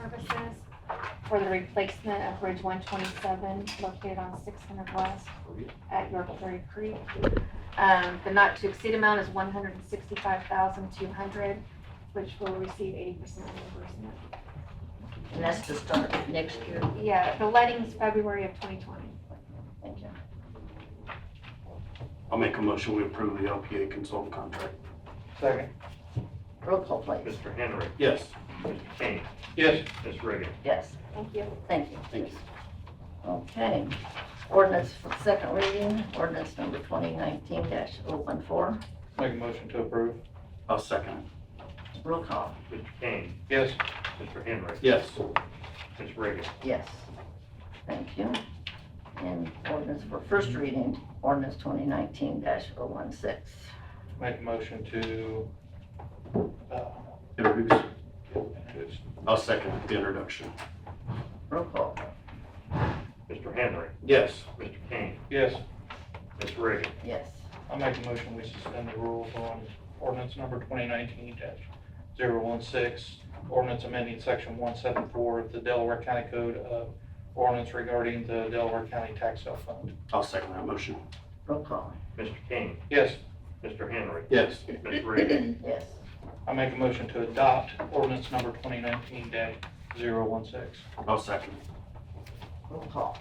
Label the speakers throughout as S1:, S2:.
S1: services for the replacement of Bridge one twenty-seven located on six hundred west at York Ferry Creek. Um, the not to exceed amount is one hundred and sixty-five thousand two hundred, which will receive eighty percent reimbursement.
S2: And that's to start next year.
S1: Yeah, the letting's February of twenty twenty.
S2: Thank you.
S3: I'll make a motion, we approve the LPA consultant contract.
S4: Second.
S2: Roll call, please.
S5: Mr. Henry,
S3: Yes.
S5: Mr. King,
S4: Yes.
S5: Ms. Reagan.
S2: Yes,
S1: Thank you.
S2: thank you.
S3: Thank you.
S2: Okay. Ordinance for second reading, ordinance number 2019-014.
S4: Make a motion to approve.
S3: I'll second it.
S2: Roll call.
S5: Mr. King,
S4: Yes.
S5: Mr. Henry,
S3: Yes.
S5: Ms. Reagan.
S2: Yes, thank you. And ordinance for first reading, ordinance 2019-016.
S4: Make a motion to, uh,
S3: Introduce. I'll second it, the introduction.
S2: Roll call.
S5: Mr. Henry,
S3: Yes.
S5: Mr. King,
S4: yes,
S5: Ms. Reagan.
S2: Yes,
S4: I make a motion we suspend the rules on ordinance number twenty nineteen 16 Ordinance amending section one seven four of the Delaware County Code of Ordinance regarding the Delaware County Tax Sale Fund.
S3: I'll second that motion.
S2: roll call.
S5: Mr. King,
S4: Yes,
S5: Mr. Henry,
S3: Yes.
S5: Ms. Reagan.
S2: Yes,
S4: I make a motion to adopt ordinance number twenty nineteen 16
S3: I'll second it.
S2: roll call.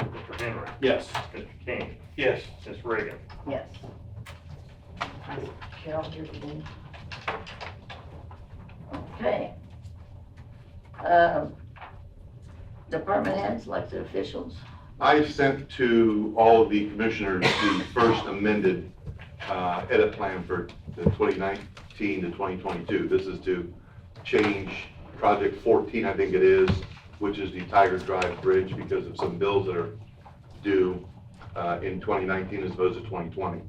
S5: Mr. Henry,
S3: Yes.
S5: Mr. King,
S4: Yes,
S5: Ms. Reagan.
S2: Yes. Carol, you're the lead. Okay. Um, Department heads, elected officials,
S6: I sent to all of the commissioners the first amended uh, edit plan for the 2019 to 2022. This is to change project 14, I think it is, which is the Tiger Drive Bridge because of some bills that are due uh, in 2019 as opposed to 2020.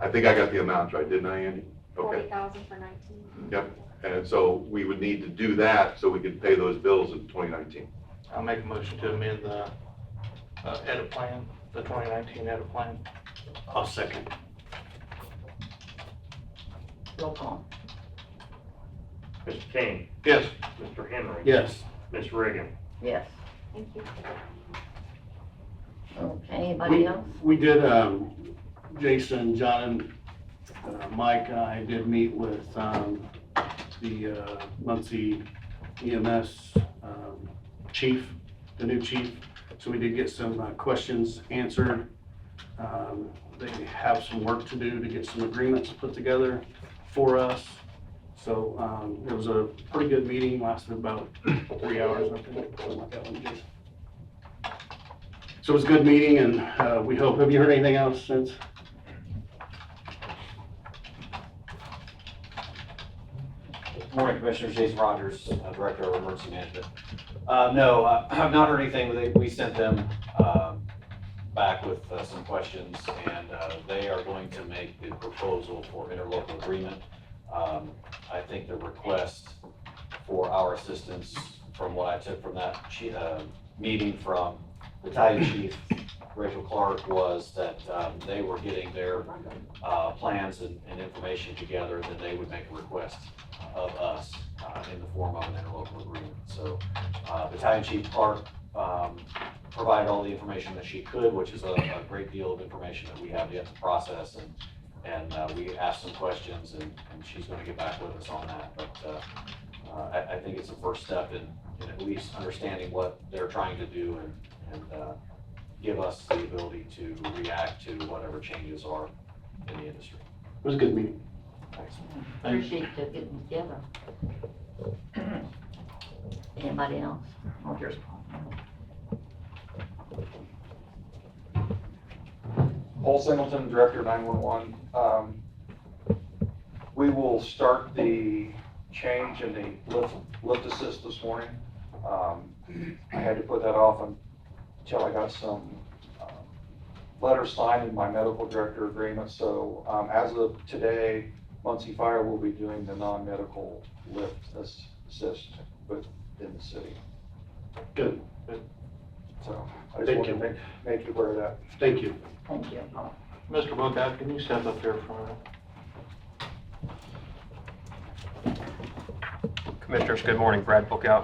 S6: I think I got the amounts right, didn't I, Andy? Okay.
S1: Forty thousand for nineteen.
S6: And so we would need to do that so we could pay those bills in 2019.
S4: I make a motion to amend the uh, edit plan, the twenty nineteen edit plan.
S3: I'll second.
S2: roll call.
S5: Mr. King,
S4: Yes,
S5: Mr. Henry,
S3: Yes.
S5: Ms. Reagan.
S2: Yes.
S1: Thank you.
S2: Okay, anybody
S3: We-
S2: else?
S3: We did, um, Jason, John, and uh, Mike and I did meet with, um, the, uh, Muncie EMS, um, chief, the new chief. So we did get some, uh, questions answered. Um, they have some work to do to get some agreements put together for us. So, um, it was a pretty good meeting, lasted about three hours, I think, something like that, Jason. So it was a good meeting and uh, we hope, have you heard anything else since?
S7: Morning, Commissioners. Jason Rogers, uh, Director of Emergency Management. Uh, No, I- I've not heard anything. They- We sent them um, back with uh, some questions, and uh, they are going to make the proposal for interlocal agreement. Um, I think the request for our assistance, from what I took from that chi- uh, meeting from Battalion Chief Rachel Clark, was that um, they were getting their uh, plans and and information together, then they would make a request of us uh, in the form of an interlocal agreement. So uh, Battalion Chief Clark um, provided all the information that she could, which is a a great deal of information that we have yet to process. And and uh, we asked some questions, and and she's going to get back with us on that. But uh, uh, I I think it's a first step in in at least understanding what they're trying to do and and uh, give us the ability to react to whatever changes are in the industry.
S3: It was a good meeting.
S7: Thanks.
S2: Appreciate you getting together. Anybody else? Oh, here's Paul.
S8: Paul Singleton, Director of 911. Um, We will start the change in the lift, lift assist this morning. Um, I had to put that off until I got some um, letters signed in my medical director agreement. So um, as of today, Muncie Fire will be doing the non-medical lift as- assist within the city.
S3: Good.
S8: So I just
S3: Thank
S8: wanted to
S3: you.
S8: make, make you aware of that.
S3: Thank you.
S2: Thank you, Paul.
S4: Mr. Bookout, can you step up here for a minute?
S9: Commissioners, good morning. Brad Bookout